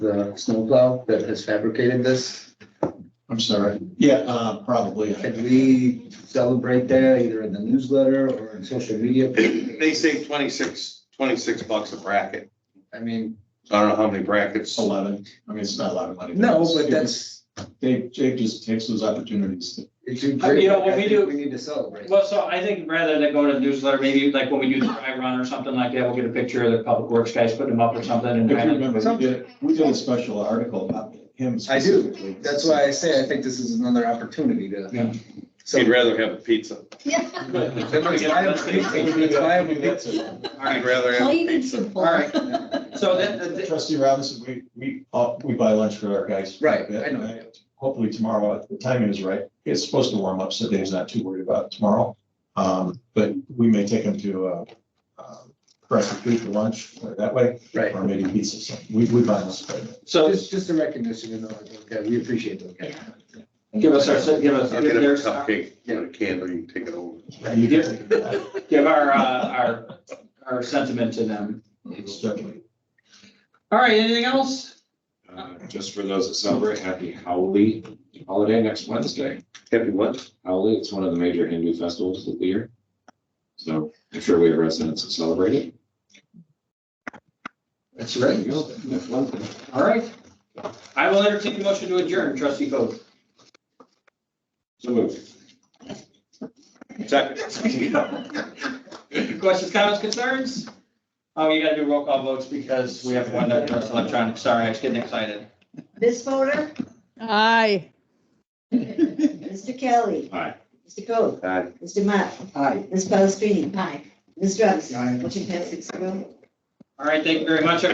the snowplow that has fabricated this? I'm sorry. Yeah, uh, probably. Can we celebrate that either in the newsletter or in social media? They saved twenty-six, twenty-six bucks a bracket. I mean, I don't know how many brackets. Eleven. I mean, it's not a lot of money. no, but that's, Dave, Dave just takes those opportunities. to- it's a I mean, great. Uh, you know, when I we think do- We need to celebrate. Well, so I think rather than go to the newsletter, maybe like when we do the dry run or something like that, we'll get a picture of the public works guys putting them up or something If and. you kind of- remember, we did, we did a special article about him I do. specifically. That's why I say I think this is another opportunity Yeah. to. So. He'd rather have a pizza. Let's buy him a pizza. Let's buy him a pizza. All He'd right, rather have a Plain and pizza. simple. All right. so uh, that, that- Trustee Robinson, we, we, uh, we buy lunch for our guys. Right, I know. Hopefully tomorrow, the timing is right. It's supposed to warm up, so Dave's not too worried about tomorrow. Um, but we may take him to, uh, uh, Crescent Creek for lunch or that way, Right. or maybe pizza. So We, we buy lunch. for them. so Just, just a recognition, you know, okay, we appreciate those guys. give us our, give us, I'll get him a there's, cupcake and a candle. You can take it over. You do. give our, uh, our, our sentiment to them. Certainly. All right, anything else? Uh, Just for those that celebrate, happy Holi holiday next Wednesday. Happy what? Holi, it's one of the major Hindu festivals of the year. So I'm sure we have residents that celebrate it. That's There you go. Next Wednesday. All right. I will entertain a motion to adjourn, trustee Coe. So moved. Questions, comments, concerns? Oh, you gotta do roll call votes because we have one that does electronic. Sorry, I was getting excited. Ms. Fodor, Aye. Mr. Kelly. Aye. Mr. Coe, Aye. Mr. Mott. Aye. Ms. Palastrellini. Aye. Ms. Robinson. Motion passes six zero. All right, thank you very much.